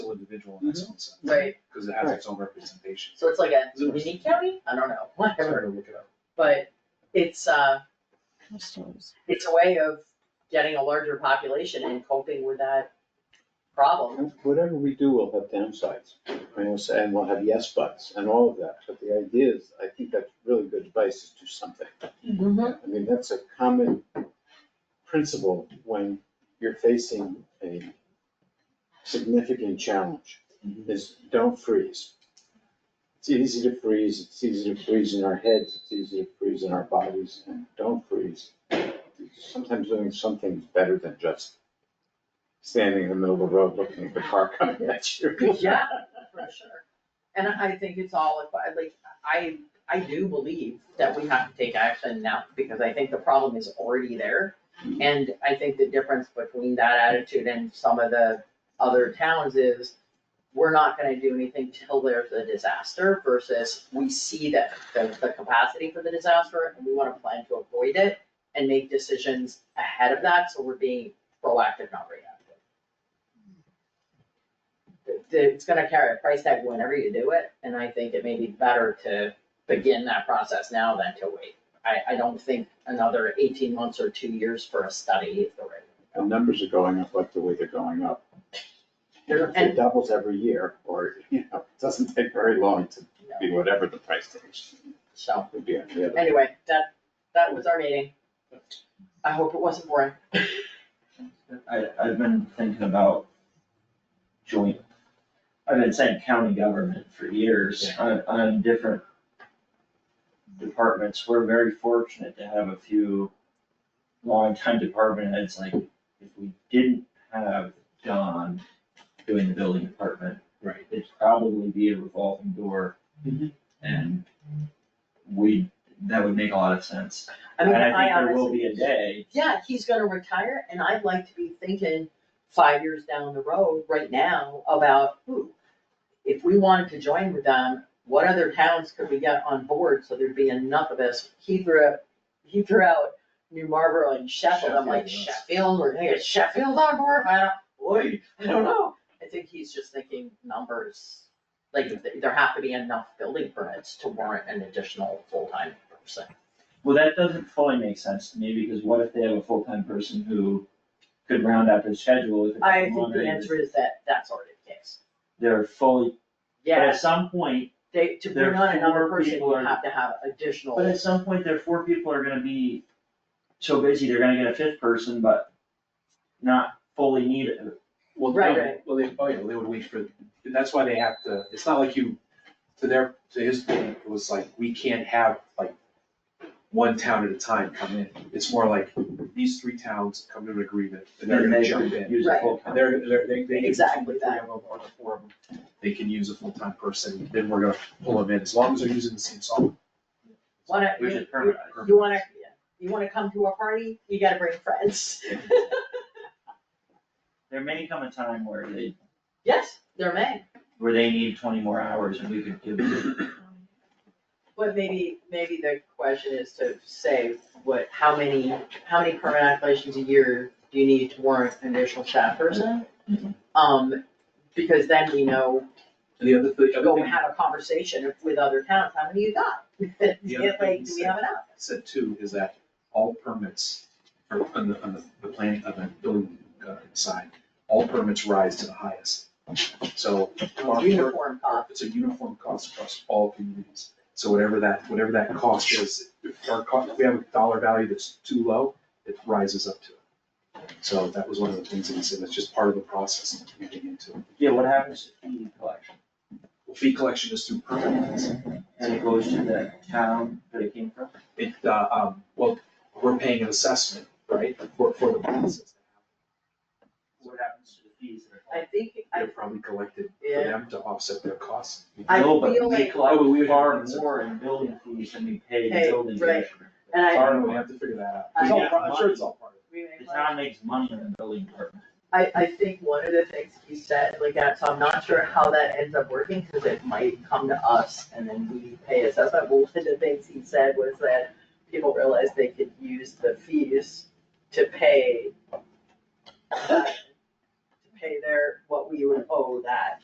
sole individual in its own sense. Right. Because it has its own representation. So it's like a Is it- mini county? I don't know, whatever, Sorry to look it up. but it's, uh, Customers. it's a way of getting a larger population and coping with that problem. Whatever we do will have downsides, you know, so- and we'll have yes buts and all of that, but the idea is, I think that's really good advice, is do something. I mean, that's a common principle when you're facing a significant challenge, is don't freeze. It's easy to freeze, it's easy to freeze in our heads, it's easy to freeze in our bodies, and don't freeze. Sometimes doing something is better than just standing in the middle of the road looking at the car coming at you. Yeah, for sure. And I think it's all, about- like, I, I do believe that we have to take action now, because I think the problem is already there. And I think the difference between that attitude and some of the other towns is, we're not gonna do anything till there's a disaster versus we see that there's the capacity for the disaster, and we wanna plan to avoid it and make decisions ahead of that, so we're being proactive, not reactive it- it's gonna carry a price tag whenever you do it, and I think it may be better to begin that process now than to wait. I, I don't think another eighteen months or two years for a study is the right. The numbers are going up like the way they're going up. Sure. It doubles every year, or, you know, it doesn't take very long to no. be whatever the price tag So, would be on the other. anyway, that, that was our meeting. I hope it wasn't boring. I, I've been thinking about joint, I've been saying county government for years on, on different departments. We're very fortunate to have a few longtime department heads, like, if we didn't have Don doing the building department. Right. It'd probably be a revolving door. Mm-hmm. Mhm. And we, that would make a lot of sense. I mean, And I think there will honestly, be a day, yeah, he's gonna retire, and I'd like to be thinking five years down the road, right now, about, ooh, if we wanted to join with them, what other towns could we get on board so there'd be enough of us? He threw up, he threw out New Marlboro and Sheffield, I'm like Sheffield, yes. Sheffield, we're gonna get Sheffield on board, I don't, boy, I don't know. I think he's just thinking numbers, like th- there have to be enough building permits to warrant an additional full-time person. well, that doesn't fully make sense to me, because what if they have a full-time person who could round out their schedule with a I couple think the months, answer is that that's already the case. They're fully, but Yeah, at some point, they, to There bring are on another four person, people you are- have to have additional. but at some point, their four people are gonna be so busy, they're gonna get a fifth person, but not fully need it. Well, Right, no, right. well, they, oh yeah, they would wait for, and that's why they have to, it's not like you, to their, to his point, it was like, we can't have like one town at a time come in. It's more like these three towns come to an agreement and they're And gonna they jump could in. Use a Right. And full-time. they're, they're, they, they can. Exactly the three that. of them or the four of them, They can use a full-time person, then we're gonna pull them in, as long as they're using the same software. Wanna, Which you, is permanent. you wanna, you wanna come to a party, you gotta bring friends. There may come a time where they, Yes, there may, where they need twenty more hours and we could give them. but maybe, maybe the question is to say what, how many, how many permanent applications a year do you need to warrant an additional staff person? Mm-hmm. Um, because then we know, And the other, the other go thing have a conversation with other towns, how many you got? Yeah, Like, do we have enough? said too is that all permits are on the, on the, the plan of the building uh, side, all permits rise to the highest. So our- Uniform cost. it's a uniform cost across all communities. So whatever that, whatever that cost is, if our cost, if we have a dollar value that's too low, it rises up to it. So that was one of the things that he said, that's just part of the process that we're getting into. Yeah, what happens to fee collection? Well, Fee collection is through permits. And it goes to the town that it came from? It, uh, um, well, we're paying an assessment, right, for, for the process. What happens to the fees that are collected? I think, I, They're probably collected for Yeah. them to offset their costs. I No, but feel we like- Oh, we collect would far have to- more in building fees than we pay Hey, the building right. commissioner. and I, Far, we have to figure that out. I- It's all part- I'm sure it's all part of we may The wanna- town makes money in the building department. I, I think one of the things he said, like, that, so I'm not sure how that ends up working, cause it might come to us and then we pay assessment. But one of the things he said was that people realized they could use the fees to pay, uh, to pay their, what we would owe that